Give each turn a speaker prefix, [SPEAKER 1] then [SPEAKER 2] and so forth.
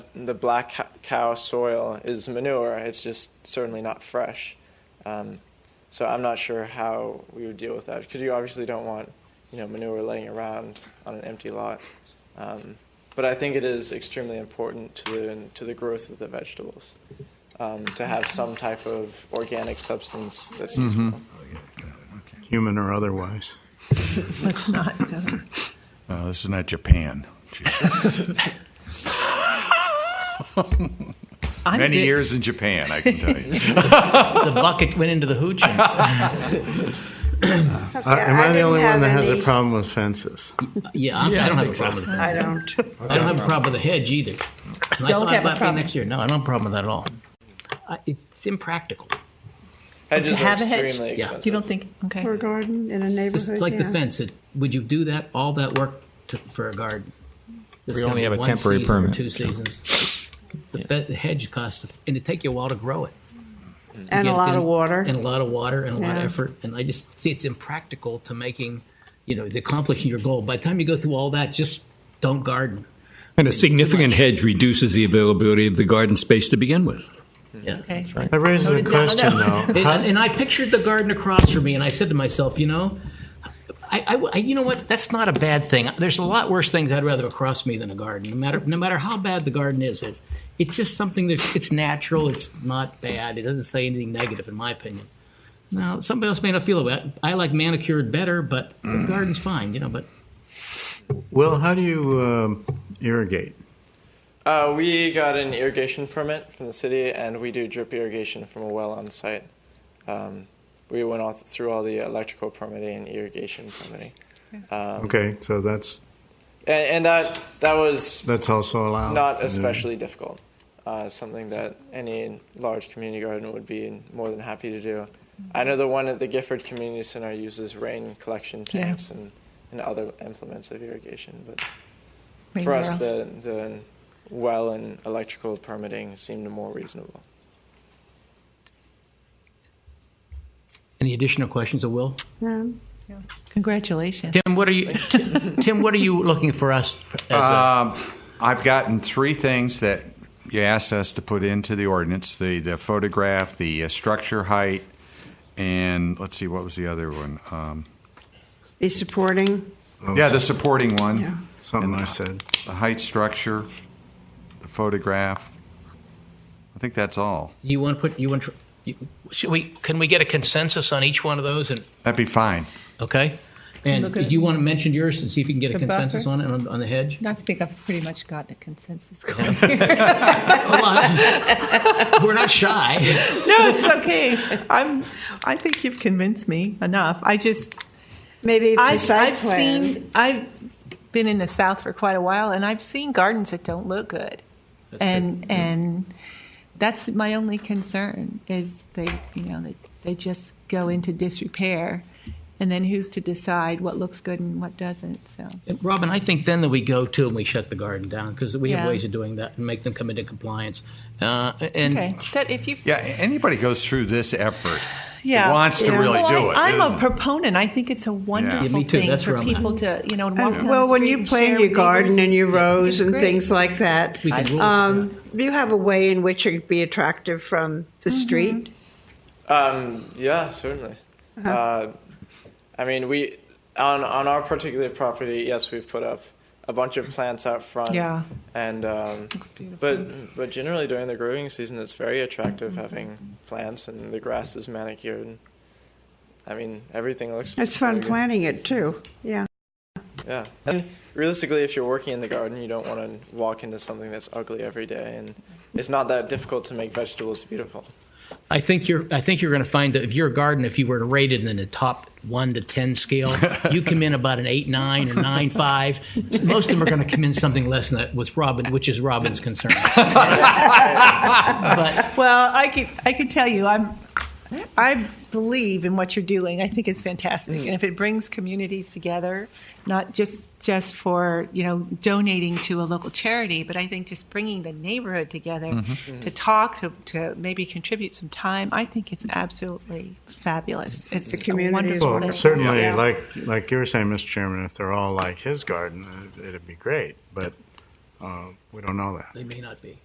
[SPEAKER 1] the black c- cow soil is manure. It's just certainly not fresh. Um, so I'm not sure how we would deal with that because you obviously don't want you know manure laying around on an empty lot. Um, but I think it is extremely important to the, to the growth of the vegetables um, to have some type of organic substance that's useful.
[SPEAKER 2] human or otherwise.
[SPEAKER 3] Let's not. uh,
[SPEAKER 4] Uh, this is not Japan.
[SPEAKER 3] I
[SPEAKER 4] Many
[SPEAKER 3] did-
[SPEAKER 4] years in Japan, I can tell you.
[SPEAKER 5] The bucket went into the hoochin.
[SPEAKER 2] Uh, Am
[SPEAKER 6] I
[SPEAKER 2] I the
[SPEAKER 6] didn't
[SPEAKER 2] only one
[SPEAKER 6] have
[SPEAKER 2] that has a
[SPEAKER 6] any.
[SPEAKER 2] problem with fences?
[SPEAKER 5] Yeah, I'm, I don't have a problem with that.
[SPEAKER 6] I don't.
[SPEAKER 5] I don't have a problem with the hedge either. And I
[SPEAKER 3] Don't
[SPEAKER 5] thought
[SPEAKER 3] have a
[SPEAKER 5] about me
[SPEAKER 3] problem.
[SPEAKER 5] next year. No, I don't have a problem with that at all. I, it's impractical.
[SPEAKER 3] To
[SPEAKER 1] Hedges are
[SPEAKER 3] have a hedge?
[SPEAKER 1] extremely
[SPEAKER 5] Yeah.
[SPEAKER 3] You
[SPEAKER 1] expensive.
[SPEAKER 3] don't think? Okay.
[SPEAKER 6] Or a garden in a neighborhood.
[SPEAKER 5] It's like the
[SPEAKER 6] yeah.
[SPEAKER 5] fence. It, would you do that? All that work to, for a garden? It's
[SPEAKER 7] We
[SPEAKER 5] gonna
[SPEAKER 7] only
[SPEAKER 5] be
[SPEAKER 7] have a
[SPEAKER 5] one
[SPEAKER 7] temporary
[SPEAKER 5] season or
[SPEAKER 7] permit.
[SPEAKER 5] Two seasons. The, fe- the hedge costs, and it take you a while to grow it.
[SPEAKER 6] And a
[SPEAKER 5] Again,
[SPEAKER 6] lot of water.
[SPEAKER 5] and a lot of water and a lot of
[SPEAKER 6] Yeah.
[SPEAKER 5] effort and i just see it's impractical to making you know to accomplishing your goal by the time you go through all that just don't garden
[SPEAKER 7] And a
[SPEAKER 5] It's too
[SPEAKER 7] significant
[SPEAKER 5] much.
[SPEAKER 7] hedge reduces the availability of the garden space to begin with.
[SPEAKER 5] yeah
[SPEAKER 3] Okay.
[SPEAKER 2] That raises a
[SPEAKER 3] no,
[SPEAKER 2] question,
[SPEAKER 3] no.
[SPEAKER 2] though.
[SPEAKER 5] and,
[SPEAKER 2] How-
[SPEAKER 5] and- and i pictured the garden across from me and i said to myself you know I, I- I- you know what? That's not a bad thing. There's a lot worse things I'd rather across me than a garden. No matter, no matter how bad the garden is, it's, it's just something that's it's natural. It's not bad. It doesn't say anything negative, in my opinion. Now, somebody else may not feel about. it. I like manicured better, but the garden's fine. You know, but
[SPEAKER 2] Will, how do you um, irrigate?
[SPEAKER 1] Uh, we got an irrigation permit from the city, and we do drip irrigation from a well on site. Um, we went all through all the electrical permitting and irrigation permitting,
[SPEAKER 2] Okay, so that's
[SPEAKER 1] and, and that that was
[SPEAKER 2] that's also allowed.
[SPEAKER 1] not
[SPEAKER 2] Yeah.
[SPEAKER 1] especially difficult. Uh, something that any large community garden would be more than happy to do. I know the one at the Gifford Community Center uses rain collection
[SPEAKER 3] Yeah.
[SPEAKER 1] tanks and, and other implements of irrigation, but for
[SPEAKER 3] Anywhere
[SPEAKER 1] us,
[SPEAKER 3] else?
[SPEAKER 1] the, the well and electrical permitting seemed more reasonable.
[SPEAKER 5] Any additional questions, of Will?
[SPEAKER 6] Um,
[SPEAKER 3] Congratulations.
[SPEAKER 5] Tim, what are you? Uh, Tim, Tim, what are you looking for us? As a,
[SPEAKER 4] Um, I've gotten three things that you asked us to put into the ordinance: the the photograph, the uh, structure height, and let's see, what was the other one? Um,
[SPEAKER 6] The supporting,
[SPEAKER 2] Oh,
[SPEAKER 4] yeah, the supporting one,
[SPEAKER 6] yeah.
[SPEAKER 2] something I said.
[SPEAKER 4] the height, structure, the photograph. I think that's all.
[SPEAKER 5] you want to put? You want? to- You, should we? Can we get a consensus on each one of those? And
[SPEAKER 4] That'd be fine.
[SPEAKER 5] okay. And
[SPEAKER 3] Look
[SPEAKER 5] do
[SPEAKER 3] at-
[SPEAKER 5] you want to mention yours and see if you can get a
[SPEAKER 3] The
[SPEAKER 5] consensus
[SPEAKER 3] buffer?
[SPEAKER 5] on it on, on the hedge?
[SPEAKER 3] I think I've pretty much gotten a consensus. no,
[SPEAKER 5] Come on. We're not shy.
[SPEAKER 3] it's okay. I'm. I think you've convinced me enough. I just.
[SPEAKER 6] Maybe for
[SPEAKER 3] I've,
[SPEAKER 6] site
[SPEAKER 3] I've
[SPEAKER 6] plan.
[SPEAKER 3] seen I've been in the South for quite a while, and I've seen gardens that don't look good, and and that's my only concern is they you know they they just go into disrepair, and then who's to decide what looks good and what doesn't? So
[SPEAKER 5] And Robin, I think then that we go to and we shut the garden down because we have
[SPEAKER 3] Yeah.
[SPEAKER 5] ways of doing that and make them come into compliance. Uh, and
[SPEAKER 3] okay, that if you
[SPEAKER 4] Yeah, a- anybody goes through this effort
[SPEAKER 3] yeah.
[SPEAKER 4] wants to
[SPEAKER 6] Yeah.
[SPEAKER 4] really
[SPEAKER 3] well,
[SPEAKER 4] do it.
[SPEAKER 3] I, I'm
[SPEAKER 4] doesn't
[SPEAKER 3] a
[SPEAKER 4] it?
[SPEAKER 3] proponent. I think it's a wonderful
[SPEAKER 5] Yeah, me too.
[SPEAKER 3] thing
[SPEAKER 5] That's where
[SPEAKER 3] for
[SPEAKER 5] I'm at.
[SPEAKER 3] people to you know and walk down
[SPEAKER 6] And-
[SPEAKER 3] the
[SPEAKER 6] Well, when
[SPEAKER 3] street
[SPEAKER 6] you
[SPEAKER 3] and
[SPEAKER 6] plan
[SPEAKER 3] share
[SPEAKER 6] your
[SPEAKER 3] with
[SPEAKER 6] garden
[SPEAKER 3] neighbors.
[SPEAKER 6] and your
[SPEAKER 3] I think
[SPEAKER 6] rows
[SPEAKER 3] it's
[SPEAKER 6] and
[SPEAKER 3] great.
[SPEAKER 6] things like that,
[SPEAKER 5] We can rule it,
[SPEAKER 6] um, you have a way in which it would be attractive from the street.
[SPEAKER 1] Um, yeah, certainly.
[SPEAKER 3] Uh-huh.
[SPEAKER 1] uh I mean, we on on our particular property, yes, we've put up a bunch of plants out front.
[SPEAKER 3] Yeah.
[SPEAKER 1] and um,
[SPEAKER 3] Looks beautiful.
[SPEAKER 1] but but generally during the growing season, it's very attractive having plants and the grass is manicured. And, I mean, everything looks.
[SPEAKER 6] It's fun
[SPEAKER 1] very good.
[SPEAKER 6] planting it too. Yeah.
[SPEAKER 1] Yeah, and realistically, if you're working in the garden, you don't want to walk into something that's ugly every day, and it's not that difficult to make vegetables beautiful.
[SPEAKER 5] I think you're. I think you're going to find that if your garden, if you were to rate it in the top one to ten scale, you come in about an eight nine or nine five. Most of them are going to come in something less than that with Robin, which is Robin's concern. but
[SPEAKER 3] Well, I could I could tell you I'm I believe in what you're doing. I think it's fantastic, and if it brings communities together, not just just for you know donating to a local charity, but I think just bringing the neighborhood together to talk to, to maybe contribute some time. I think it's absolutely fabulous. It's
[SPEAKER 6] The community
[SPEAKER 3] a
[SPEAKER 6] is
[SPEAKER 3] wonderful. thing.
[SPEAKER 6] Well, wonderful.
[SPEAKER 2] certainly,
[SPEAKER 6] Yeah.
[SPEAKER 2] like like you were saying, Mr. Chairman, if they're all like his garden, it, it'd be great. But uh, we don't know that.
[SPEAKER 5] they may not be.